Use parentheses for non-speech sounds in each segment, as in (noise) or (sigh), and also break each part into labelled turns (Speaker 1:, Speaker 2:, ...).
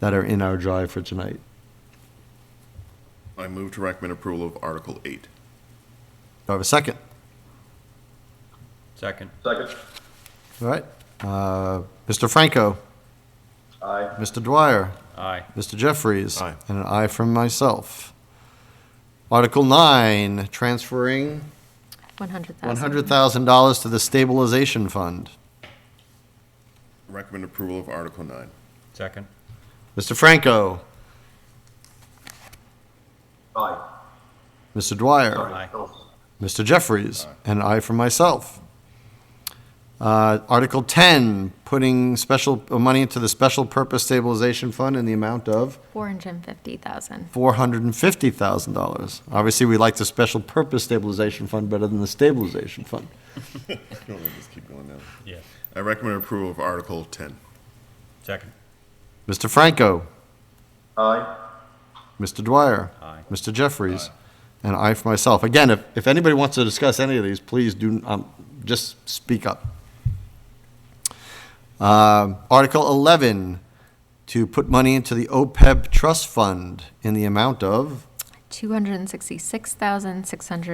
Speaker 1: that are in our drive for tonight.
Speaker 2: I move to recommend approval of Article 8.
Speaker 1: Do I have a second?
Speaker 3: Second.
Speaker 4: Second.
Speaker 1: All right. Uh, Mr. Franco?
Speaker 4: Aye.
Speaker 1: Mr. Dwyer?
Speaker 3: Aye.
Speaker 1: Mr. Jeffries?
Speaker 2: Aye.
Speaker 1: And an aye from myself. Article 9, transferring
Speaker 5: 100,000.
Speaker 1: $100,000 to the stabilization fund.
Speaker 2: Recommend approval of Article 9.
Speaker 3: Second.
Speaker 1: Mr. Franco?
Speaker 4: Aye.
Speaker 1: Mr. Dwyer?
Speaker 3: Aye.
Speaker 1: Mr. Jeffries, and I for myself. Uh, Article 10, putting special, uh, money into the Special Purpose Stabilization Fund in the amount of
Speaker 5: 450,000.
Speaker 1: $450,000. Obviously, we like the Special Purpose Stabilization Fund better than the Stabilization Fund.
Speaker 2: I (laughs) don't know, just keep going down.
Speaker 3: Yes.
Speaker 2: I recommend approval of Article 10.
Speaker 3: Second.
Speaker 1: Mr. Franco,
Speaker 4: Aye.
Speaker 1: Mr. Dwyer,
Speaker 3: Aye.
Speaker 1: Mr. Jeffries, and I for myself. Again, if, if anybody wants to discuss any of these, please do, um, just speak up. Um, Article 11, to put money into the OPEB trust fund in the amount of,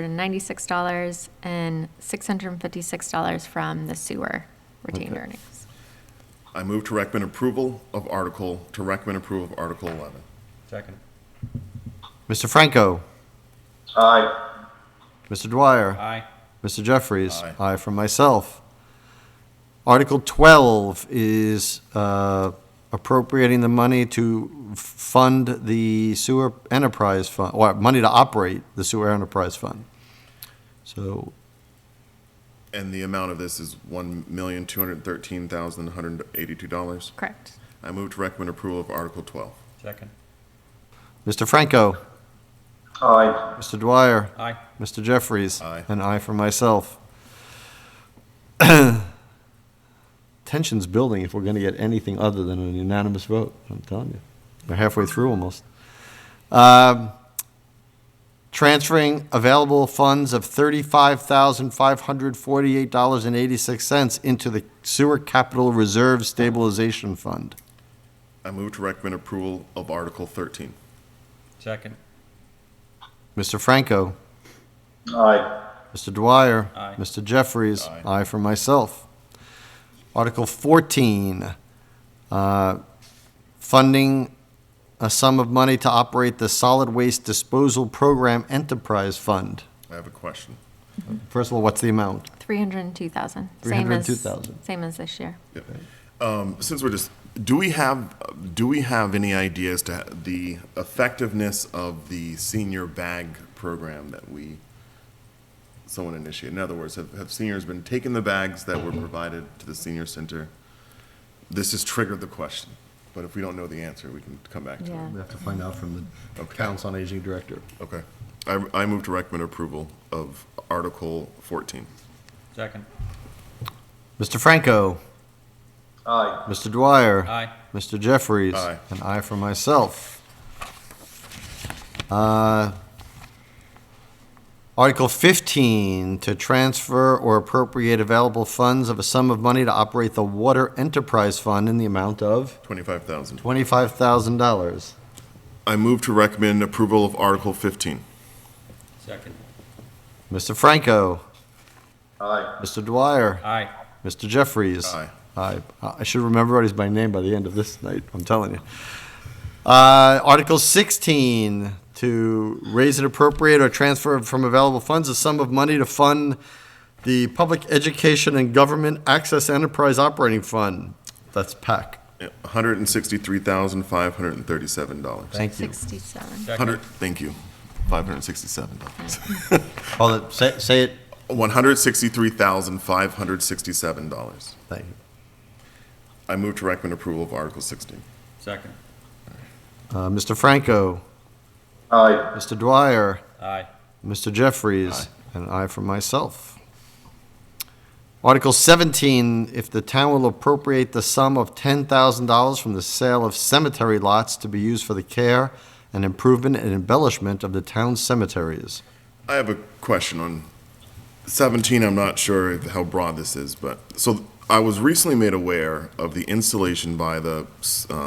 Speaker 5: $266,696 and $656 from the sewer retained earnings.
Speaker 2: I move to recommend approval of Article, to recommend approval of Article 11.
Speaker 3: Second.
Speaker 1: Mr. Franco,
Speaker 4: Aye.
Speaker 1: Mr. Dwyer,
Speaker 3: Aye.
Speaker 1: Mr. Jeffries.
Speaker 2: Aye.
Speaker 1: I for myself. Article 12 is uh, appropriating the money to f- fund the sewer enterprise fund, or money to operate the sewer enterprise fund. So,
Speaker 2: And the amount of this is $1,213,182.
Speaker 5: Correct.
Speaker 2: I move to recommend approval of Article 12.
Speaker 3: Second.
Speaker 1: Mr. Franco,
Speaker 4: Aye.
Speaker 1: Mr. Dwyer,
Speaker 3: Aye.
Speaker 1: Mr. Jeffries.
Speaker 2: Aye.
Speaker 1: And I for myself. Tension's building if we're going to get anything other than an unanimous vote, I'm telling you. We're halfway through almost. Um, Transferring available funds of $35,548.86 into the Sewer Capital Reserve Stabilization Fund.
Speaker 2: I move to recommend approval of Article 13.
Speaker 3: Second.
Speaker 1: Mr. Franco?
Speaker 4: Aye.
Speaker 1: Mr. Dwyer.
Speaker 3: Aye.
Speaker 1: Mr. Jeffries.
Speaker 2: Aye.
Speaker 1: for myself. Article 14, uh, funding a sum of money to operate the Solid Waste Disposal Program Enterprise Fund.
Speaker 2: I have a question.
Speaker 1: First of all, what's the amount?
Speaker 5: 302,000. Same as-
Speaker 1: 302,000.
Speaker 5: Same as this year.
Speaker 2: Um, since we're just, do we have, do we have any ideas to the effectiveness of the senior bag program that we, someone initiated? In other words, have, have seniors been taking the bags that were provided to the senior center? This has triggered the question, but if we don't know the answer, we can come back to
Speaker 5: Yeah.
Speaker 2: it.
Speaker 1: have to find out from the Council on Aging Director.
Speaker 2: Okay. I, I move to recommend approval of Article 14.
Speaker 3: Second.
Speaker 1: Mr. Franco.
Speaker 4: Aye.
Speaker 1: Mr. Dwyer.
Speaker 3: Aye.
Speaker 1: Mr. Jeffries.
Speaker 2: Aye.
Speaker 1: And I for myself. Uh, Article 15, to transfer or appropriate available funds of a sum of money to operate the Water Enterprise Fund in the amount of
Speaker 2: 25,000.
Speaker 1: $25,000.
Speaker 2: I move to recommend approval of Article 15.
Speaker 3: Second.
Speaker 1: Mr. Franco.
Speaker 4: Aye.
Speaker 1: Mr. Dwyer.
Speaker 3: Aye.
Speaker 1: Mr. Jeffries.
Speaker 2: Aye.
Speaker 1: I, I should remember everybody's by name by the end of this night, I'm telling you. Uh, Article 16, to raise and appropriate or transfer from available funds a sum of money to fund the Public Education and Government Access Enterprise Operating Fund. That's PAC.
Speaker 2: $163,537.
Speaker 1: Thank you.
Speaker 5: 67.
Speaker 3: Second.
Speaker 2: Hundred, thank you, five hundred
Speaker 1: (laughs)
Speaker 2: sixty-seven dollars.
Speaker 1: Call it, say, say it.
Speaker 2: One hundred sixty-three thousand five hundred sixty-seven dollars.
Speaker 1: Thank you.
Speaker 2: I move to recommend approval of Article sixteen.
Speaker 3: Second.
Speaker 1: Uh, Mr. Franco,
Speaker 4: Aye.
Speaker 1: Mr. Dwyer,
Speaker 3: Aye.
Speaker 1: Mr. Jeffries, and I for myself. Article 17, if the town will appropriate the sum of $10,000 from the sale of cemetery lots to be used for the care and improvement and embellishment of the town's cemeteries.
Speaker 2: I have a question on seventeen, I'm not sure if- how broad this is, but, so I was recently made aware of the installation by the, uh,